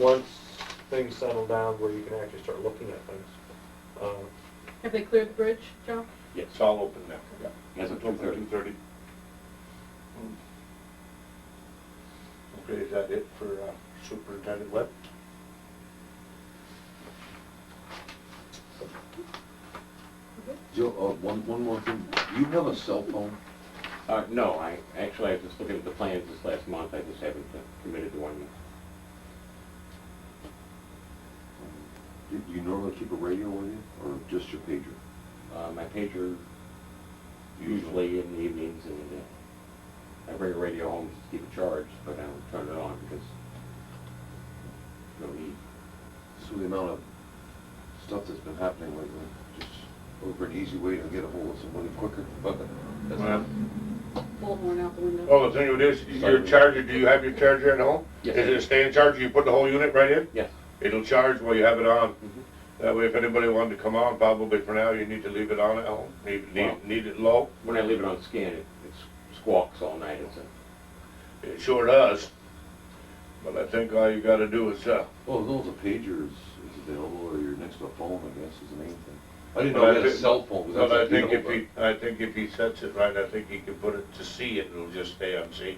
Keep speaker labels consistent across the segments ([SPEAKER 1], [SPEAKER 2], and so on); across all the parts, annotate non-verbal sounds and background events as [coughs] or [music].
[SPEAKER 1] once things settle down where you can actually start looking at things. Um,
[SPEAKER 2] Have they cleared the bridge, Joe?
[SPEAKER 3] It's all open now.
[SPEAKER 4] As of two thirty.
[SPEAKER 3] Two thirty. Okay, is that it for uh, Superintendent Webb?
[SPEAKER 4] Joe, uh, one, one more thing, do you have a cell phone?
[SPEAKER 5] Uh, no, I, actually, I was just looking at the plans this last month, I just haven't uh, committed to one yet.
[SPEAKER 4] Do do you normally keep a radio with you, or just your pager?
[SPEAKER 5] Uh, my pager usually in the evenings and uh, I bring a radio home to keep it charged, but I don't turn it on because no need.
[SPEAKER 4] So the amount of stuff that's been happening lately, just over an easy way to get a hold of somebody quicker, but that's
[SPEAKER 3] Well,
[SPEAKER 2] Bullhorn out the window.
[SPEAKER 3] Well, Oh, the thing with this, your charger, do you have your charger at home?
[SPEAKER 5] Yes, I
[SPEAKER 3] Is it a
[SPEAKER 5] do.
[SPEAKER 3] stand charger? You put the whole unit right in?
[SPEAKER 5] Yes.
[SPEAKER 3] It'll charge while you have it on.
[SPEAKER 5] Mhm.
[SPEAKER 3] That way, if anybody wanted to come on, probably for now, you need to leave it on at home. Need,
[SPEAKER 5] Wow.
[SPEAKER 3] need, need it low?
[SPEAKER 5] When I leave it on scan, it, it squawks all night, it's a,
[SPEAKER 3] It sure does. But I think all you gotta do is, uh,
[SPEAKER 4] Well, as long as a pager is, is available, or you're next to a phone, I guess, is the main thing. I didn't
[SPEAKER 3] But
[SPEAKER 4] know
[SPEAKER 3] I
[SPEAKER 4] we had a
[SPEAKER 3] think-
[SPEAKER 4] cell phone, because
[SPEAKER 3] But I
[SPEAKER 4] that's
[SPEAKER 3] think if
[SPEAKER 4] beautiful.
[SPEAKER 3] he, I think if he sets it right, I think he can put it to C and it'll just stay on C.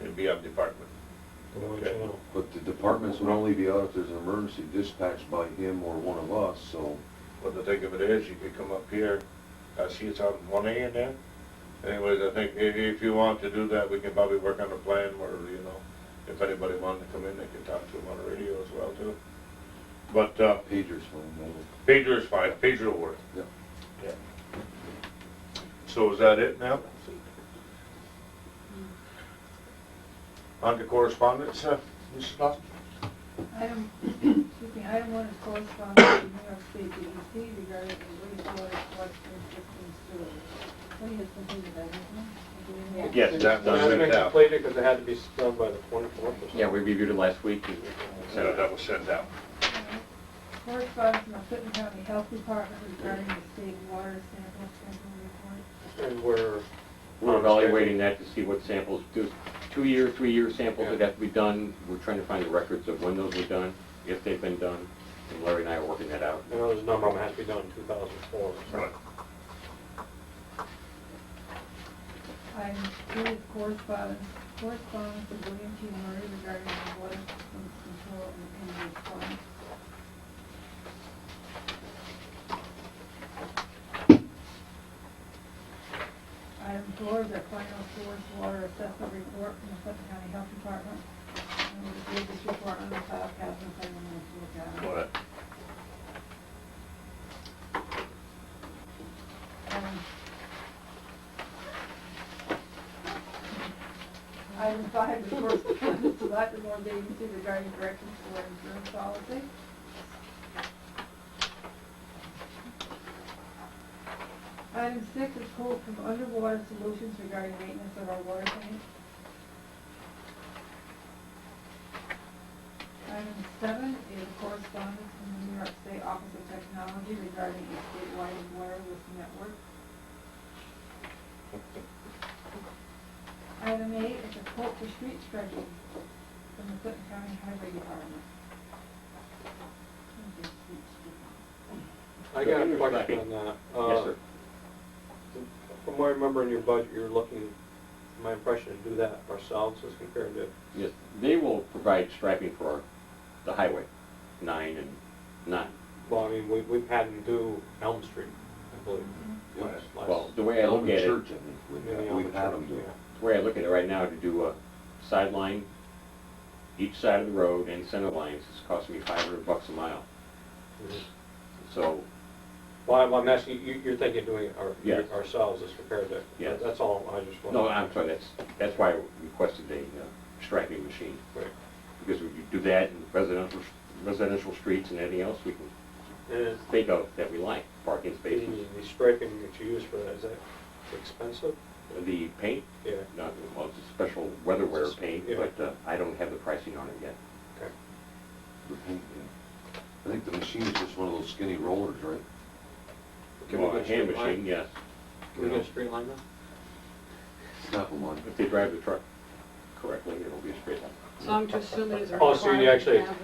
[SPEAKER 3] It'll be on department.
[SPEAKER 1] and one
[SPEAKER 3] Okay.
[SPEAKER 1] channel.
[SPEAKER 4] But the departments would only be out if there's an emergency dispatched by him or one of us, so.
[SPEAKER 3] But the thing of it is, you could come up here, I see it's on one A in there. Anyways, I think if, if you want to do that, we can probably work on a plan where, you know, if anybody wanted to come in, they could talk to him on the radio as well too. But, uh,
[SPEAKER 4] Pager's phone, that'll-
[SPEAKER 3] pager is fine, pager will work.
[SPEAKER 4] Yeah.
[SPEAKER 3] Yeah. So is that it now? On to correspondence, uh, Mrs. Lofton?
[SPEAKER 6] Item, [coughs] excuse me, item one is correspondence from New York State DEC regarding the wastewater collection system sewer. We have something to that, isn't it?
[SPEAKER 3] Yes, that
[SPEAKER 1] I
[SPEAKER 3] was
[SPEAKER 1] haven't
[SPEAKER 3] sent out.
[SPEAKER 1] completed because it had to be done by the twenty-fourth or something.
[SPEAKER 5] yeah, we reviewed it last week and sent
[SPEAKER 3] So
[SPEAKER 5] it out.
[SPEAKER 3] that was sent out.
[SPEAKER 6] Correspondence from the Clinton County Health Department regarding the state water sample sample report.
[SPEAKER 1] And we're,
[SPEAKER 5] We're evaluating that to see what samples, there's two-year, three-year samples that have to be done. We're trying to find the records of when those were done, if they've been done, and Larry and I are working that out.
[SPEAKER 1] you know, there's a number of them has to be done in two thousand four.
[SPEAKER 3] Right.
[SPEAKER 6] Item two is correspondence, correspondence of William T. Murray regarding the water system control and the Pond. Item four is our final source water assessment report from the Suffolk County Health Department. And we received this report on the file cabinet, if anyone wants to look at it.
[SPEAKER 3] Well, that-
[SPEAKER 6] Um, Item five, the correspondence to Latimore Agency regarding directions for insurance policy. Item six is quote from Underwater Solutions regarding maintenance of our water tank. Item seven is correspondence from the New York State Office of Technology regarding a statewide wireless network. Item eight is a quote for street stretching from the Clinton County Highway Department. Let me get street stretching.
[SPEAKER 1] I got a question on that.
[SPEAKER 5] Yes, sir.
[SPEAKER 1] Uh, From what I remember in your budget, you're looking, my impression, to do that ourselves as compared to
[SPEAKER 5] Yes, they will provide striping for our- the highway, nine and nine.
[SPEAKER 1] Well, I mean, we, we've had them do Elm Street, I believe.
[SPEAKER 6] Mm-hmm.
[SPEAKER 4] Yeah.
[SPEAKER 1] last- last-
[SPEAKER 5] Well, the way I look
[SPEAKER 4] Elm
[SPEAKER 5] at it,
[SPEAKER 4] Church, I think,
[SPEAKER 1] maybe
[SPEAKER 4] we've had-
[SPEAKER 1] Elm
[SPEAKER 4] we've had
[SPEAKER 1] Church,
[SPEAKER 4] them do it.
[SPEAKER 1] yeah.
[SPEAKER 5] the way I look at it right now, to do a sideline, each side of the road and center lines, it's costing me five hundred bucks a mile.
[SPEAKER 1] Mhm.
[SPEAKER 5] So,
[SPEAKER 1] Well, I'm asking, you, you're thinking of doing it our-
[SPEAKER 5] Yes.
[SPEAKER 1] ourselves as compared to,
[SPEAKER 5] Yes.
[SPEAKER 1] that's all, I just want.
[SPEAKER 5] no, I'm sorry, that's, that's why I requested a uh, striping machine. Because if you do that in residential, residential streets and anything else, we can
[SPEAKER 1] And
[SPEAKER 5] think of that we like, parking
[SPEAKER 1] the,
[SPEAKER 5] spaces.
[SPEAKER 1] the striping that you use for that, is that expensive?
[SPEAKER 5] The paint,
[SPEAKER 1] Yeah,
[SPEAKER 5] not, well, it's a special weatherware paint,
[SPEAKER 1] Yeah.
[SPEAKER 5] but uh, I don't have the pricing on it yet.
[SPEAKER 1] okay.
[SPEAKER 4] The paint, yeah. I think the machine is just one of those skinny rollers, right?
[SPEAKER 1] Can we
[SPEAKER 5] Well,
[SPEAKER 1] get
[SPEAKER 5] a hand
[SPEAKER 1] straight line?
[SPEAKER 5] machine, yes,
[SPEAKER 1] Can we get a straight line now?
[SPEAKER 4] Snap them on.
[SPEAKER 5] if they drive the truck correctly, it'll be a straight line.
[SPEAKER 2] So I'm just assuming it's a
[SPEAKER 1] Oh, so you
[SPEAKER 2] requirement to
[SPEAKER 1] actually-
[SPEAKER 2] have